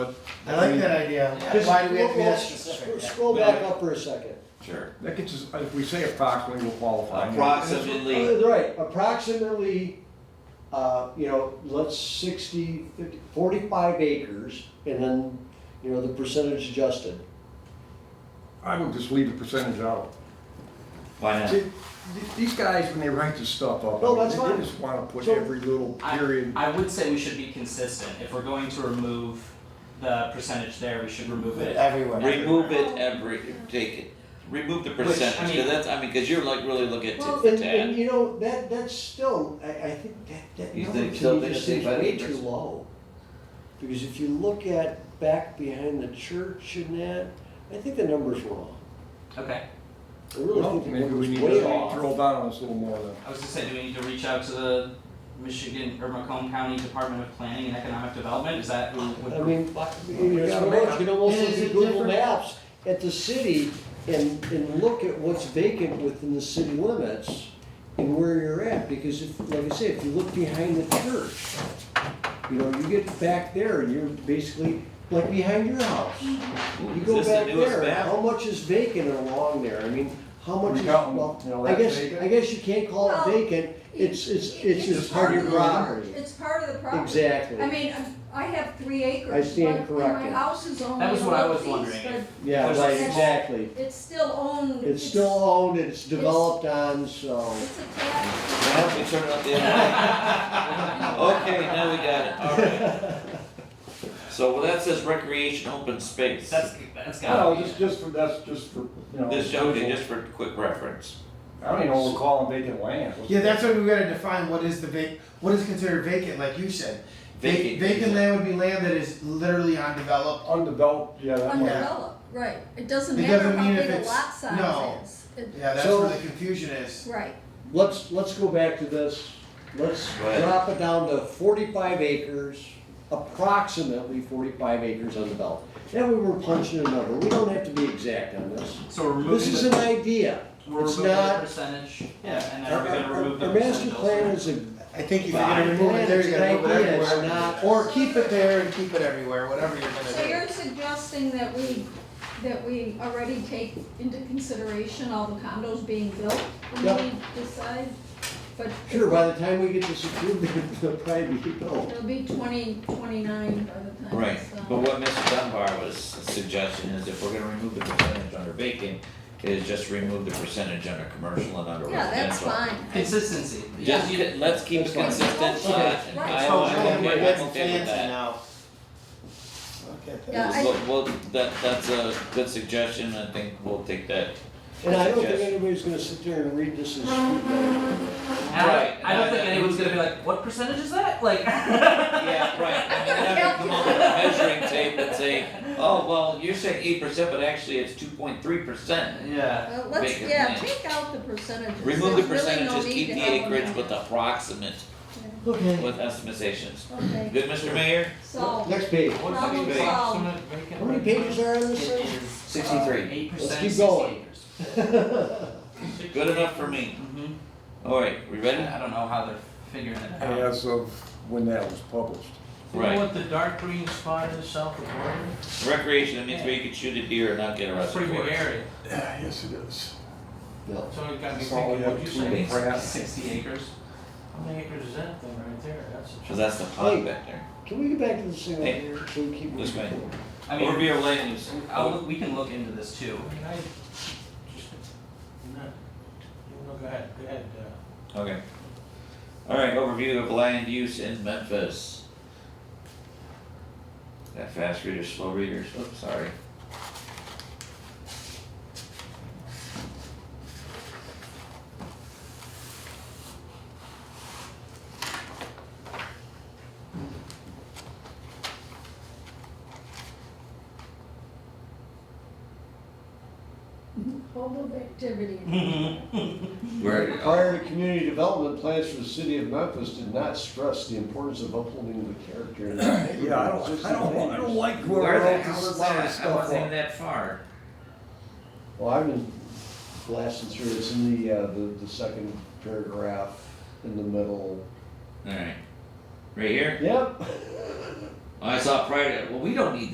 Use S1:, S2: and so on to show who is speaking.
S1: I like that idea.
S2: Yeah.
S1: Why do we have to be that
S2: Just-
S1: specific?
S2: Scroll back up for a second.
S3: Sure.
S4: That gets us, if we say approximately, we'll qualify.
S3: Approximately,
S2: Uh, Right, approximately, uh, you know, let's 60, 50, 45 acres, and then, you know, the percentage adjusted.
S4: I would just leave the percentage out.
S3: why not?
S4: See, th- These guys, when they write this stuff up, I
S2: No,
S4: mean,
S2: that's
S4: they
S2: fine.
S4: just wanna put
S2: So-
S4: every little period.
S5: I would say we should be consistent. If we're going to remove the percentage there, we should remove it.
S1: Everywhere.
S3: Remove it every, take it, remove the
S5: I
S3: percentage,
S5: mean-
S3: cause that's, I mean, cause you're like really looking at tit
S2: And,
S3: for
S2: and
S3: tat.
S2: you know, that, that's still, I, I think that, that
S3: You
S2: number
S3: think so,
S2: to me
S3: but
S2: just
S3: I think
S2: seems
S3: by
S2: way
S3: the-
S2: too low. Because if you look at back behind the church and that, I think the number's wrong.
S5: Okay.
S2: I really
S4: Well,
S2: think the
S4: Maybe we
S2: number's
S4: need
S2: way
S4: to
S2: off.
S4: drill down on this a little more then.
S5: I was just saying, do we need to reach out to the Michigan or Macomb County Department of Planning and Economic Development? Is that who would?
S2: I mean, you know,
S4: Yeah,
S2: so
S4: man.
S2: you can almost
S1: And
S2: look
S1: is
S2: at
S1: it
S2: Google
S1: different?
S2: Maps at the city and, and look at what's vacant within the city limits and where you're at, because if, like I said, if you look behind the church, you know, you get back there and you're basically, like behind your house.
S3: Ooh,
S2: You
S3: Mm-hmm. is
S2: go
S3: this the
S2: back
S3: newest
S2: there,
S3: map?
S2: how much is vacant along there? I mean, how much
S4: We
S2: is,
S4: got one, you know,
S2: well, I
S4: that's
S2: guess,
S4: vacant.
S2: I guess you can't call it
S6: Well,
S2: vacant, it's, it's, it's just part of your
S6: the-
S2: property.
S6: It's part of the property.
S2: Exactly.
S6: I mean, I have three acres.
S2: I stand
S6: but- and
S2: corrected.
S6: My house is only.
S5: That was what I was
S6: 11
S5: wondering.
S6: feet,
S2: Yeah,
S5: There's a
S2: right,
S6: small-
S2: exactly.
S6: but It's still owned.
S2: It's still owned, it's developed
S6: developed
S2: on, so.
S6: It's attached.
S3: Now, we turn it up the other way. Okay, now we got it, alright. So, well, that says recreation open space.
S5: That's that's got
S4: No,
S5: to be.
S4: just, just for, that's just for, you know.
S3: This
S4: social-
S3: joking, just for quick reference.
S4: I don't even know what we're calling vacant land. What's-
S1: Yeah, that's what we gotta define, what is the vac, what is considered vacant, like you said. Va-
S3: Vacant.
S1: Vacant land would be land that is literally undeveloped.
S4: Undeveloped, yeah, that one.
S6: undeveloped, right. It doesn't
S1: It
S6: matter
S1: doesn't
S6: how
S1: mean
S6: big
S1: if
S6: a
S1: it's-
S6: lot
S1: no.
S6: size is. It-
S1: Yeah, that's
S2: So-
S1: where the confusion is.
S6: Right.
S2: Let's, let's go back to this, let's
S3: Go ahead.
S2: drop it down to forty-five acres, approximately forty-five acres undeveloped. Then we were punching a number, we don't have to be exact on this.
S5: So we're removing
S2: This is an
S5: the,
S2: idea.
S5: we're
S2: it's
S5: removing the
S2: not-
S5: percentage.
S2: Yeah.
S5: And then
S2: Our,
S5: we're going to
S2: our-
S5: remove the
S2: our
S5: percentage.
S2: master plan
S5: also.
S2: is a,
S1: I think if you're gonna remove it there, you gotta remove it
S2: Idea is
S1: everywhere.
S2: not-
S1: Or keep it there and keep it everywhere, whatever you're
S6: So
S1: gonna
S6: you're suggesting that we, that we already take into consideration all the condos being built when
S2: Yep.
S6: we decide? But
S2: sure, by the time we get this approved, it'll probably be built.
S6: it'll be twenty, twenty-nine by the time.
S3: Right,
S6: it's, uh,
S3: but what Mr. Dunbar was suggesting is if we're gonna remove the percentage under vacant, is just remove the percentage under commercial and under
S6: Yeah,
S3: residential.
S6: that's fine.
S5: Consistency.
S3: Just,
S5: Yeah.
S3: get- let's keep it
S2: That's fine.
S3: consistent,
S6: Okay.
S3: uh, and
S6: Right.
S3: I,
S1: do.
S6: I-
S1: So,
S3: I'm
S1: Oh, yeah, we're
S3: okay, I'm
S1: getting
S3: okay with
S1: fancy
S3: that.
S1: now. Okay, thank
S6: Yeah, I-
S3: Well, well, that, that's a good suggestion, I think we'll take that.
S2: And I don't think
S3: Yes.
S2: anybody's gonna sit there and read this and scrutinize.
S5: And I-
S3: Right.
S5: I don't think
S3: Uh,
S5: anyone's going to be like, what percentage is that? Like.
S3: Yeah, right, I mean, have to come up with a measuring tape and say, oh, well, you're saying eight percent, but actually it's two point three percent.
S5: Yeah.
S6: Well, Uh, let's,
S3: Vacant
S6: yeah,
S3: land.
S6: take out the percentages.
S3: Remove the
S6: There's really no
S3: percentages, E
S6: need
S3: keep
S6: to
S3: the
S6: have them
S3: acreage
S6: in.
S3: with the approximate,
S1: you. Okay.
S3: with estimations.
S6: Okay,
S3: Good, Mr. Mayor?
S6: so,
S2: Next page.
S5: What
S6: Problem
S5: fucking
S3: solved.
S5: problem?
S2: How many pages are in this
S5: It
S2: thing?
S5: is,
S3: Sixty-three.
S5: uh, Eight percent.
S2: Let's keep going.
S3: Good enough for me.
S5: Mm-hmm.
S3: Alright, we ready?
S5: I don't know how they're figuring it out.
S4: As of when that was published.
S7: You know
S3: Right,
S7: what the dark green spot is south of Oregon?
S3: recreation, that means where you can shoot a deer and not get
S7: That's a
S3: arrested
S7: pretty
S3: for
S7: big
S3: it.
S7: area.
S4: Yeah, yes it is.
S2: No.
S7: So you gotta be
S4: That's all we
S7: thinking,
S4: have
S7: what'd you
S3: between
S7: say?
S3: the-
S5: Sixty acres.
S7: How many acres is that thing right there? That's a.
S3: Cause that's the pond back there.
S2: Can we get back to the single
S3: Hey,
S2: here, so we keep
S3: this
S2: moving
S3: way.
S2: forward?
S5: I mean,
S3: Overview of land use.
S5: I'll, we can look into this too.
S7: I mean, I just, not, you know, go ahead, go ahead, uh.
S3: Okay. Alright, overview of land use in Memphis. Got fast readers, slow readers, oops, sorry.
S6: mobile activity.
S3: Where,
S2: Prior to community development, plans for the city of Memphis did not stress the importance of upholding the character. and integrity
S4: Yeah, I
S2: of
S4: don't, I
S2: existing
S4: don't, I don't
S2: homes.
S4: like whoever
S3: where the
S4: wrote
S3: hell
S4: this
S3: is
S4: lot of
S3: that? I
S4: stuff
S3: wasn't even
S4: up.
S3: that far.
S2: Well, I've been blasting through, it's in the, uh, the, the second paragraph in the middle.
S3: Alright. Right here?
S2: Yep.
S3: I saw prior to, well, we don't need